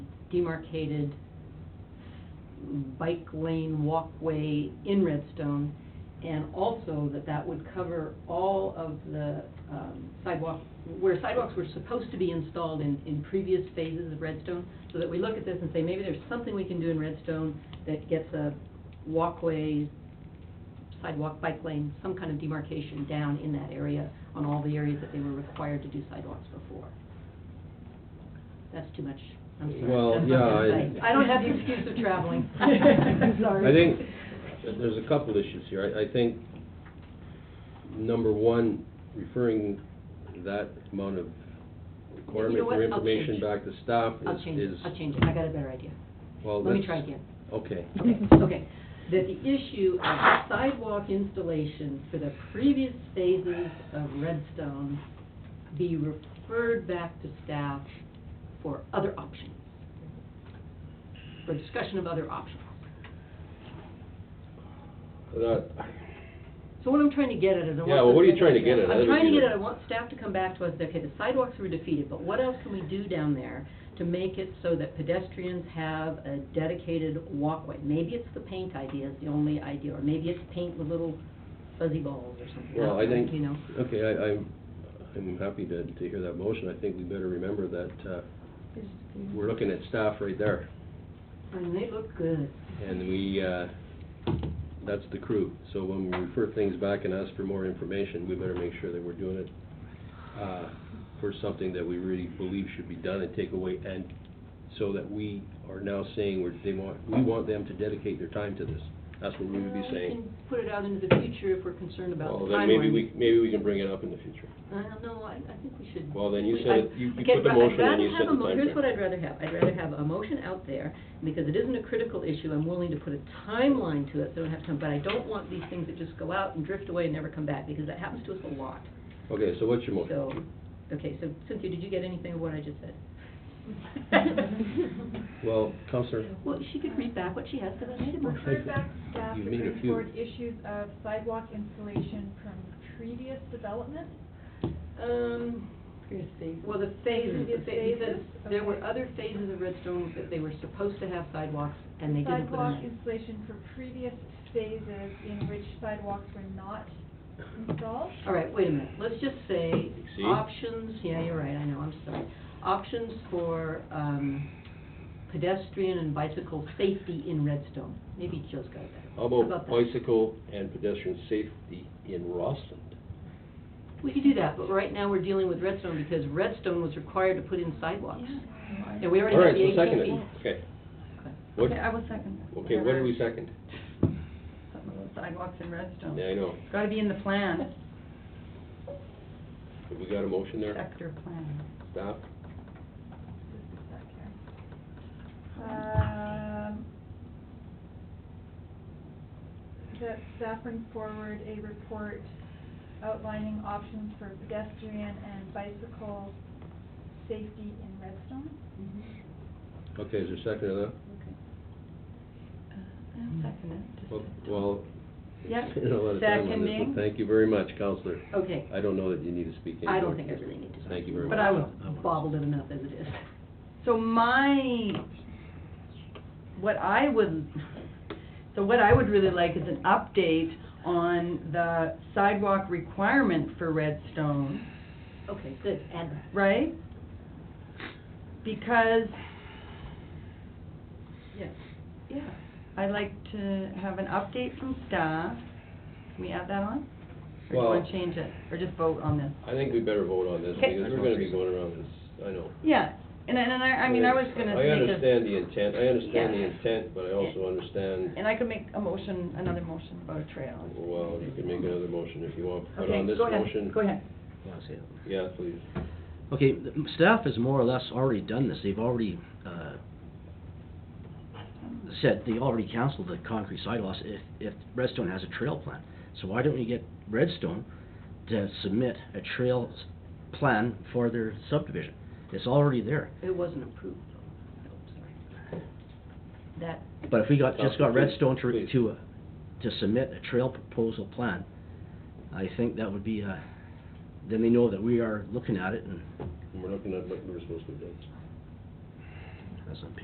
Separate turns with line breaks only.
demarcated bike lane walkway in Redstone, and also that that would cover all of the um, sidewalk, where sidewalks were supposed to be installed in, in previous phases of Redstone, so that we look at this and say, maybe there's something we can do in Redstone that gets a walkway, sidewalk, bike lane, some kind of demarcation down in that area, on all the areas that they were required to do sidewalks before. That's too much, I'm sorry.
Well,
That's not
yeah,
gonna
I-
say. I don't have the excuse of traveling. Sorry.
I think that there's a couple issues here. I, I think, number one, referring that amount of requirement
You know
for
what? I'll
information
change.
back to staff
I'll change
is,
it,
is,
I'll change it, I got a better idea.
well,
Let me
that's-
try again.
Okay.
Okay, okay. That the issue of sidewalk installation for the previous phases of Redstone be referred back to staff for other options, for discussion of other options.
That-
So what I'm trying to get at is I want.
Yeah, well, what are you
the-
trying to get at?
I'm
That'd
trying to
be-
get at, I want staff to come back to us, and say, okay, the sidewalks were defeated, but what else can we do down there to make it so that pedestrians have a dedicated walkway? Maybe it's the paint idea is the only idea, or maybe it's paint with little fuzzy balls or something.
Well, I think,
You know,
okay, I, I'm, I'm happy to, to hear that motion. I think we better remember that, uh, we're looking at staff right there.
and they look good.
And we, uh, that's the crew. So when we refer things back and ask for more information, we better make sure that we're doing it uh, for something that we really believe should be done and take away, and so that we are now saying we're, they want, we want them to dedicate their time to this. That's what we would be
Well,
saying.
can put it out into the future if we're concerned about the
Well,
timeline.
then maybe we, maybe we can bring it up in the future.
I don't know, I, I think we should.
Well, then you
we-
said
I-
it- you- you
okay,
put the
but I'd
motion and
rather
you
have a
said the
mo-
time
Here's
frame.
what I'd rather have, I'd rather have a motion out there, because it isn't a critical issue, I'm willing to put a timeline to it, so I don't have time, but I don't want these things that just go out and drift away and never come back, because that happens to us a lot.
Okay, so what's your motion?
So, okay, so Cynthia, did you get anything of what I just said?
Well, Counselor,
Well, she could read back what she has, because I made a motion.
Okay.
Refer back to staff
You've
to
made a
bring
few.
forward issues of sidewalk installation from previous development.
Um, well, the phases, the
Previous
pha- he says
phases,
there were
okay.
other phases of Redstone that they were supposed to have sidewalks, and they didn't put
Sidewalk
them in.
installation for previous phases in which sidewalks were not installed.
All right, wait a minute, let's just say
See?
options, yeah, you're right, I know, I'm sorry. Options for, um, pedestrian and bicycle safety in Redstone, maybe Joe's got that.
how about
that?
bicycle and pedestrian safety in Rossland?
We could do that, but right now we're dealing with Redstone because Redstone was required to put in sidewalks. And we already
All right,
have the
so second
eighteen
it.
feet.
Okay.
Okay.
What,
Okay, I will second.
okay, what do we second?
Something about Sidewalks in Redstone.
Yeah, I know.
Gotta be in the plan,
Have we got a motion there?
sector plan.
Stop.
Just a sec here. Um, That staff bring forward a report outlining options for pedestrian and bicycle safety in Redstone.
Okay, is there a second to that?
Uh, I'll second
Well- Well,
Yeah,
you know, a lot of time on this,
seconding.
but thank you very much, Counselor.
Okay,
I don't know that you need to speak anymore.
I don't think I really need to.
Thank you very much.
But I was bobbled it enough as it is.
So my, what I would, so what I would really like is an update on the sidewalk requirement for Redstone,
Okay, good, add that.
right? Because,
Yes.
yeah, I'd like to have an update from staff. Can we add that on? Or do you
Well-
wanna change it, or just vote on this?
I think we better vote on this,
Okay.
because we're gonna be going around this, I know.
Yeah, and, I- and I, I mean, I was gonna
I
make a,
understand the intent, I understand the
Yeah.
intent, but I also understand,
and I could make a motion, another motion about a trail.
well, you can make another motion if you want, but
Okay,
on this
go ahead,
motion,
Go ahead.
Yeah, I see it.
yeah, please.
Okay, the m- staff has more or less already done this, they've already, uh, said, they already canceled the concrete sidewalks if, if Redstone has a trail plan. So why don't we get Redstone to submit a trail s- plan for their subdivision? It's already there,
It wasn't approved, though. No, sorry. That,
but if we got, just got
Counselor, please,
Redstone to,
please.
to, uh, to submit a trail proposal plan, I think that would be, uh, then they know that we are looking at it and
We're looking at what we're supposed to do.
that's on